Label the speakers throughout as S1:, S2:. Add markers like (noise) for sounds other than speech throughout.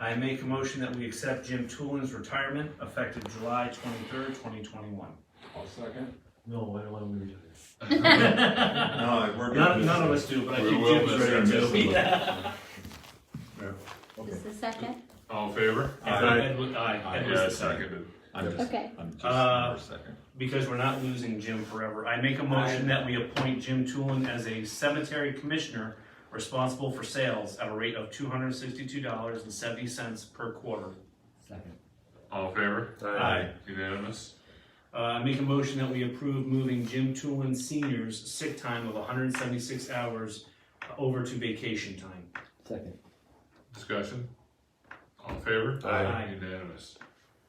S1: I make a motion that we accept Jim Toolin's retirement effective July twenty-third, twenty twenty-one.
S2: I'll second.
S3: No, I don't want to move
S2: (laughs)
S1: None,
S2: No, we're.
S1: none of us do, but I
S4: We
S1: think
S4: will
S1: Jim's
S4: miss
S1: ready
S4: him, miss
S1: to.
S4: him.
S1: (laughs)
S5: Is the second?
S4: All in favor?
S2: Aye.
S1: Ed was- aye, Ed was
S4: Yeah,
S1: the second.
S4: seconded.
S2: I'm just,
S5: Okay,
S2: I'm just
S1: Uh,
S2: number second.
S1: Because we're not losing Jim forever, I make a motion that we appoint Jim Toolin as a cemetery commissioner responsible for sales at a rate of two hundred and sixty-two dollars and seventy cents per quarter.
S3: Second.
S4: All in favor?
S1: Aye.
S4: Unanimous?
S1: Uh, I make a motion that we approve moving Jim Toolin Senior's sick time of hundred and seventy-six hours over to vacation time.
S3: Second.
S4: Discussion? All in favor?
S1: Aye. Aye.
S4: Unanimous?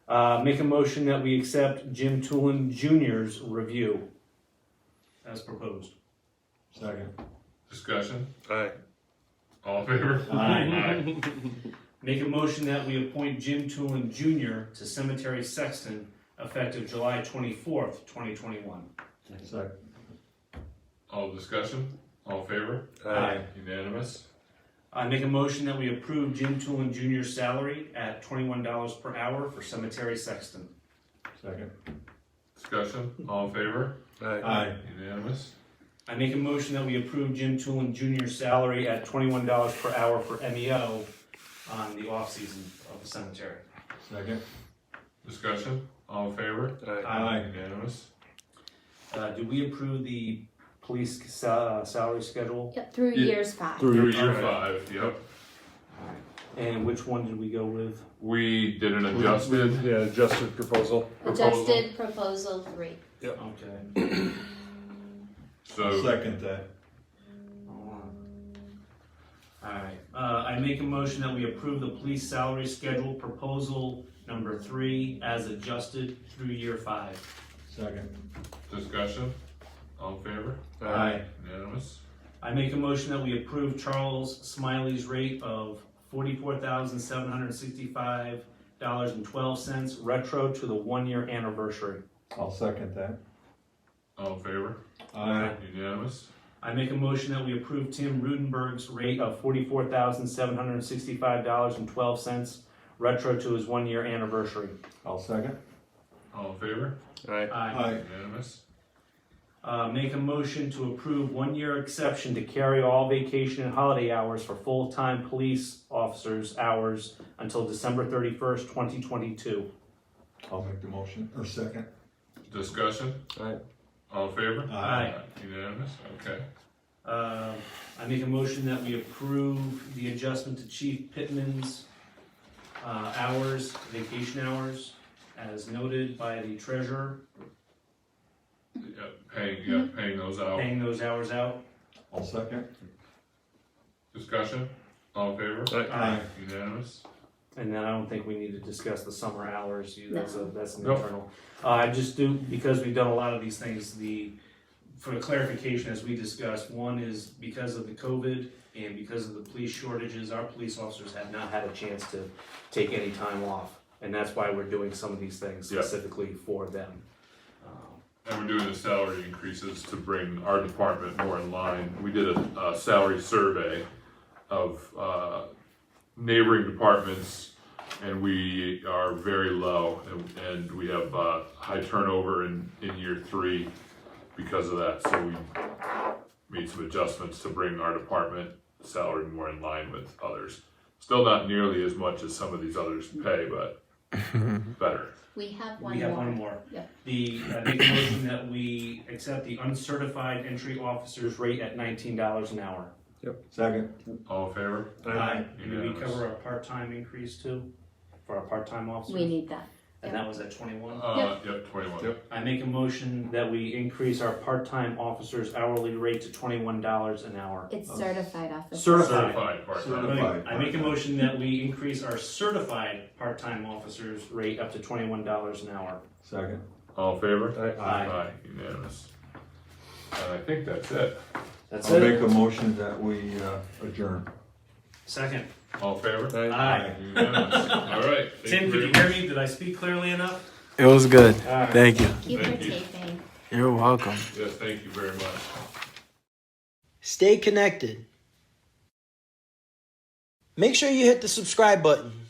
S1: Uh, make a motion that we accept Jim Toolin Junior's review as proposed.
S2: Second.
S4: Discussion? Aye. All in favor? Aye.
S1: Make a motion that we appoint Jim Toolin Junior to cemetery sexton effective July twenty-fourth, twenty twenty-one.
S3: Second.
S2: Second.
S4: All discussion? All in favor?
S1: Aye.
S4: Unanimous?
S1: I make a motion that we approve Jim Toolin Junior's salary at twenty-one dollars per hour for cemetery sexton.
S2: Second.
S4: Discussion? All in favor?
S2: Aye.
S4: Unanimous?
S1: I make a motion that we approve Jim Toolin Junior's salary at twenty-one dollars per hour for MEO on the off-season of the cemetery.
S2: Second.
S4: Discussion? All in favor?
S2: Aye.
S4: Unanimous?
S1: Uh, do we approve the police sa- uh, salary schedule?
S5: yep, through
S4: Yeah.
S5: years five.
S4: Through year
S1: Alright.
S4: five, yep.
S1: And which one did we go with?
S4: We did an adjusted.
S6: Yeah, adjusted proposal.
S4: Proposal.
S5: Adjusted proposal three.
S1: Okay.
S4: So,
S2: Second that.
S1: Alright, uh, I make a motion that we approve the police salary schedule proposal number three as adjusted through year five.
S2: Second.
S4: discussion? All in favor?
S2: Aye.
S4: Unanimous?
S1: I make a motion that we approve Charles Smiley's rate of forty-four thousand seven hundred sixty-five dollars and twelve cents retro to the one-year anniversary.
S2: I'll second that.
S4: All in favor?
S2: Aye.
S4: Unanimous?
S1: I make a motion that we approve Tim Rudenberg's rate of forty-four thousand seven hundred sixty-five dollars and twelve cents retro to his one-year anniversary.
S2: I'll second.
S4: All in favor?
S1: Aye.
S2: Aye.
S4: Unanimous?
S1: Uh, make a motion to approve one-year exception to carry all vacation and holiday hours for full-time police officers' hours until December thirty-first, twenty twenty-two.
S2: I'll make the motion, or second.
S4: Discussion?
S6: Aye.
S4: All in favor?
S1: Aye.
S4: Unanimous? Okay.
S1: Uh, I make a motion that we approve the adjustment to Chief Pittman's, uh, hours, vacation hours, as noted by the treasurer,
S4: Yeah, paying, yeah, paying those out.
S1: paying those hours out.
S2: I'll second.
S4: Discussion? All in favor?
S1: Aye.
S4: Unanimous?
S1: Uh, And then I don't think we need to discuss the summer hours, you, that's a, that's an
S4: Nope.
S1: internal. Uh, I just do, because we've done a lot of these things, the, for clarification, as we discussed, one is because of the COVID and because of the police shortages, our police officers have not had a chance to take any time off. And that's why we're doing some of these things
S4: Yeah.
S1: specifically for them. Um,
S4: And we're doing the salary increases to bring our department more in line. We did a, a salary survey of, uh, neighboring departments, and we are very low, and, and we have, uh, high turnover in, in year three because of that, so we made some adjustments to bring our department salary more in line with others. Still not nearly as much as some of these others pay, but better.
S5: We have one
S1: We have one
S5: more.
S1: more.
S5: Yeah.
S1: The, I make a motion that we accept the uncertified entry officer's rate at nineteen dollars an hour.
S2: Second.
S4: All in favor?
S1: And did we
S4: Unanimous.
S1: cover our part-time increase too, for our part-time
S5: We
S1: officers?
S5: need that.
S1: And that was at twenty-one?
S4: Uh, yep, twenty-one.
S6: Yep.
S1: I make a motion that we increase our part-time officers hourly rate to twenty-one dollars an hour.
S5: It's certified officer.
S1: Certified.
S4: Certified part-time.
S2: Certified.
S1: I make a motion that we increase our certified part-time officers rate up to twenty-one dollars an hour.
S2: Second.
S4: All in favor?
S1: Aye.
S4: Unanimous. And I think that's it.
S1: That's
S2: I'll
S1: it.
S2: make a motion that we uh, adjourn.
S1: Second.
S4: All
S1: (laughs)
S4: in favor?
S1: Aye.
S4: Unanimous. All right. Thank
S1: Tim,
S4: very
S1: did you
S4: much.
S1: hear me? Did I speak clearly enough?
S6: It was good.
S1: All right.
S6: Thank you.
S5: Keep her
S4: Thank you.
S5: taping.
S6: You're welcome.
S4: Yeah, thank you very much.
S7: Stay connected. Make sure you hit the subscribe button.